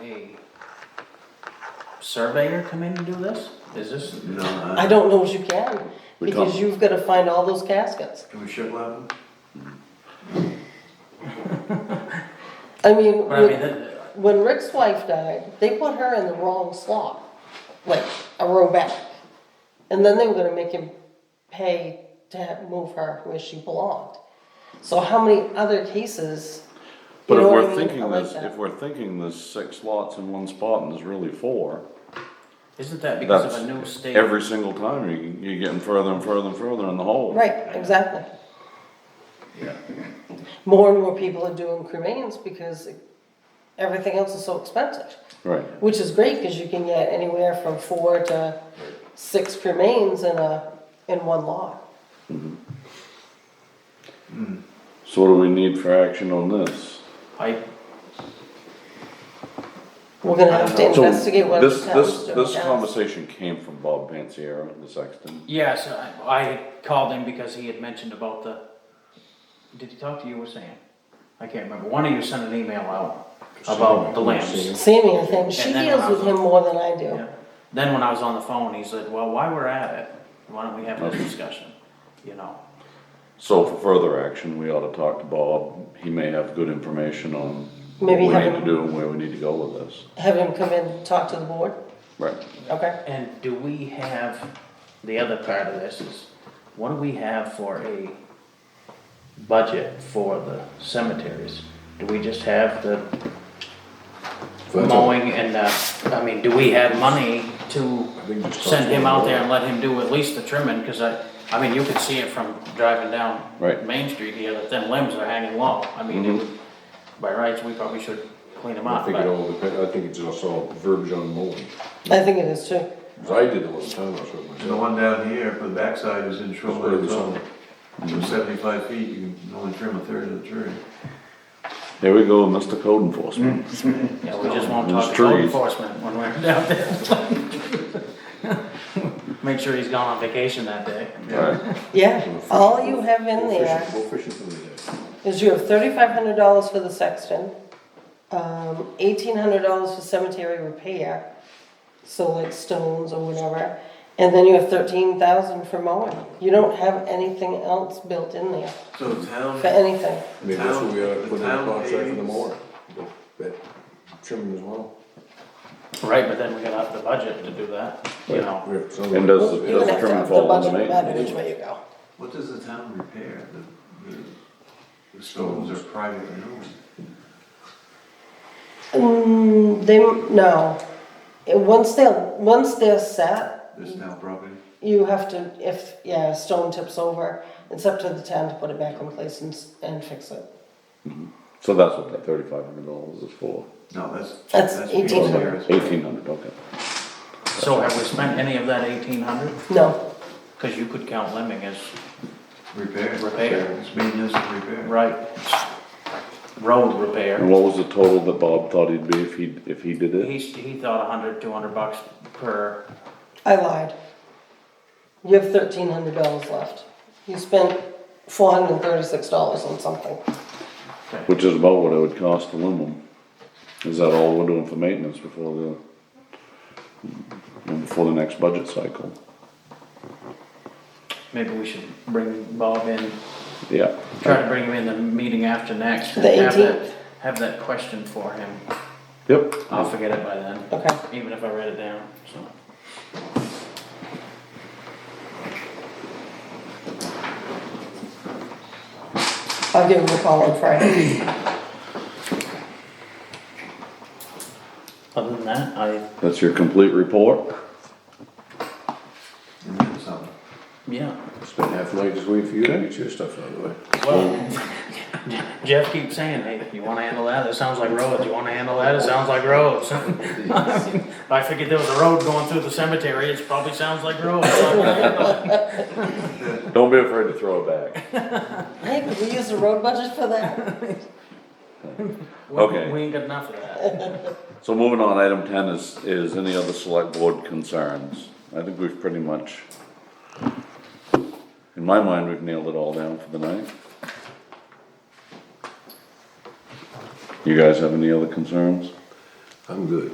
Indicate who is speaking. Speaker 1: surveyor come in and do this? Is this?
Speaker 2: No,
Speaker 3: I
Speaker 2: uh,
Speaker 3: don't know if you can,
Speaker 4: We
Speaker 3: because
Speaker 4: can't.
Speaker 3: you've gotta find all those caskets.
Speaker 2: can we ship lab them?
Speaker 1: But
Speaker 3: I mean,
Speaker 1: I mean,
Speaker 3: when-
Speaker 1: that-
Speaker 3: when Rick's wife died, they put her in the wrong slot, like a row back. And then they were gonna make him pay to have- move her where she belonged. So how many other cases? you
Speaker 4: But if
Speaker 3: know what I
Speaker 4: we're
Speaker 3: mean? I
Speaker 4: thinking
Speaker 3: like
Speaker 4: this,
Speaker 3: that.
Speaker 4: if we're thinking there's six lots in one spot and there's really four,
Speaker 1: isn't that because
Speaker 4: that's
Speaker 1: of a new state?
Speaker 4: every single time you, you're getting further and further and further in the hole.
Speaker 3: Right, exactly.
Speaker 2: Yeah.
Speaker 3: More and more people are doing cremains because everything else is so expensive.
Speaker 4: Right.
Speaker 3: Which is great, cause you can get anywhere from four to six cremains in a, in one lot.
Speaker 4: So what do we need for action on this?
Speaker 1: I,
Speaker 3: We're gonna have to
Speaker 1: I
Speaker 4: So
Speaker 3: investigate what the
Speaker 4: this,
Speaker 3: town's
Speaker 4: this,
Speaker 3: doing.
Speaker 4: this conversation came from Bob Pansiero, the sexton.
Speaker 1: yes, I, I called him because he had mentioned about the, did he talk to you or Sam? I can't remember. One of you sent an email out about the lamps.
Speaker 3: Sammy, I think, she
Speaker 1: And then
Speaker 3: deals
Speaker 1: I'll-
Speaker 3: with him more than I do.
Speaker 1: Yeah. Then when I was on the phone, he said, well, while we're at it, why don't we have this discussion? You know,
Speaker 4: So for further action, we ought to talk to Bob. He may have good information on what
Speaker 3: Maybe
Speaker 4: we
Speaker 3: have
Speaker 4: need to
Speaker 3: him-
Speaker 4: do and where we need to go with this.
Speaker 3: Have him come in, and talk to the board,
Speaker 4: Right.
Speaker 3: okay?
Speaker 1: and do we have, the other part of this is, what do we have for a budget for the cemeteries? Do we just have the mowing and, uh, I mean, do we have money to
Speaker 2: think it's
Speaker 1: send him
Speaker 2: possible.
Speaker 1: out there and let him do at least the trimming? Cause I, I mean, you could see it from driving down
Speaker 4: Right.
Speaker 1: Main Street here, that them limbs are hanging low. I mean, it would- by rights, we probably should clean them
Speaker 5: Mm-hmm.
Speaker 1: up,
Speaker 5: I think it
Speaker 1: but
Speaker 5: all depends, I think it's also verbiage on mowing,
Speaker 3: I think it is too.
Speaker 5: 'Cause I did a little time, I showed
Speaker 2: And the
Speaker 5: myself.
Speaker 2: one down here for the backside is in shoreline
Speaker 5: It's
Speaker 2: zone. It was seventy-five feet, you can only trim a third of the tree.
Speaker 4: There we go, Mr. Code Enforcement.
Speaker 1: yeah, we just won't
Speaker 4: Those
Speaker 1: talk to code
Speaker 4: trees.
Speaker 1: enforcement when we're down there. Make sure he's gone on vacation that day.
Speaker 4: Right.
Speaker 3: Yeah, all you have in
Speaker 5: Go
Speaker 3: there
Speaker 5: fishing- Go fishing for the day.
Speaker 3: is you have thirty-five hundred dollars for the sexton, um, eighteen hundred dollars for cemetery repair, so like stones or whatever, and then you have thirteen thousand for mowing. You don't have anything else built in there
Speaker 2: So the town,
Speaker 3: for anything.
Speaker 5: Maybe that's what we ought to
Speaker 2: The
Speaker 5: put in the
Speaker 2: town
Speaker 5: contract for the
Speaker 2: pays-
Speaker 5: mower, that trimming as well.
Speaker 1: Right, but then we gotta have the budget to do that, you know?
Speaker 5: We have some-
Speaker 4: And does the,
Speaker 3: You're
Speaker 4: does
Speaker 3: gonna
Speaker 4: the
Speaker 3: have to
Speaker 4: trimming
Speaker 3: up the
Speaker 4: fall under
Speaker 3: budget no matter
Speaker 4: maintenance?
Speaker 3: which way you go.
Speaker 2: what does the town repair? The, the- the stones are privately owned.
Speaker 3: Mm, they, no. Uh, Once they're, once they're set,
Speaker 2: This town property,
Speaker 3: you have to, if, yeah, stone tips over, it's up to the town to put it back in place and, s- and fix it.
Speaker 4: So that's what that thirty-five hundred dollars is for.
Speaker 2: no, that's.
Speaker 3: That's
Speaker 2: people
Speaker 3: 1800.
Speaker 2: there.
Speaker 4: Eighteen hundred, okay.
Speaker 1: So have we spent any of that eighteen hundred?
Speaker 3: No,
Speaker 1: Cause you could count lemming as
Speaker 2: Repair.
Speaker 1: Repair.
Speaker 2: It's maintenance and repair.
Speaker 1: Right. Road repair.
Speaker 4: And what was the total that Bob thought he'd be if he, if he did it?
Speaker 1: He, he thought a hundred, two hundred bucks per,
Speaker 3: I lied. You have thirteen hundred dollars left. You spent four hundred and thirty-six dollars on something.
Speaker 4: Which is about what it would cost to limb 'em. Is that all we're doing for maintenance before the, and before the next budget cycle?
Speaker 1: maybe we should bring Bob in,
Speaker 4: Yeah.
Speaker 1: try to bring him in the meeting after next.
Speaker 3: The
Speaker 1: Have that-
Speaker 3: 18th?
Speaker 1: Have that question for him,
Speaker 4: Yep.
Speaker 1: I'll forget it by then,
Speaker 3: Okay,
Speaker 1: even if I write it down, so.
Speaker 3: I'll give him a call on Friday.
Speaker 1: Other than that, I,
Speaker 4: That's your complete report?
Speaker 2: And then some.
Speaker 1: yeah.
Speaker 5: Spend half night just waiting for you to get your stuff out of the way.
Speaker 1: Well, Jeff keeps saying, hey, you wanna handle that, it sounds like roads, you wanna handle that, it sounds like roads. I figured there was a road going through the cemetery, it probably sounds like roads.
Speaker 4: Don't be afraid to throw it back.
Speaker 3: Hey, could we use the road budget for that?
Speaker 4: Okay.
Speaker 1: We ain't got enough of that.
Speaker 4: So moving on, item ten is, is any other select board concerns? I think we've pretty much, in my mind, we've nailed it all down for the night. You guys have any other concerns?
Speaker 5: I'm good.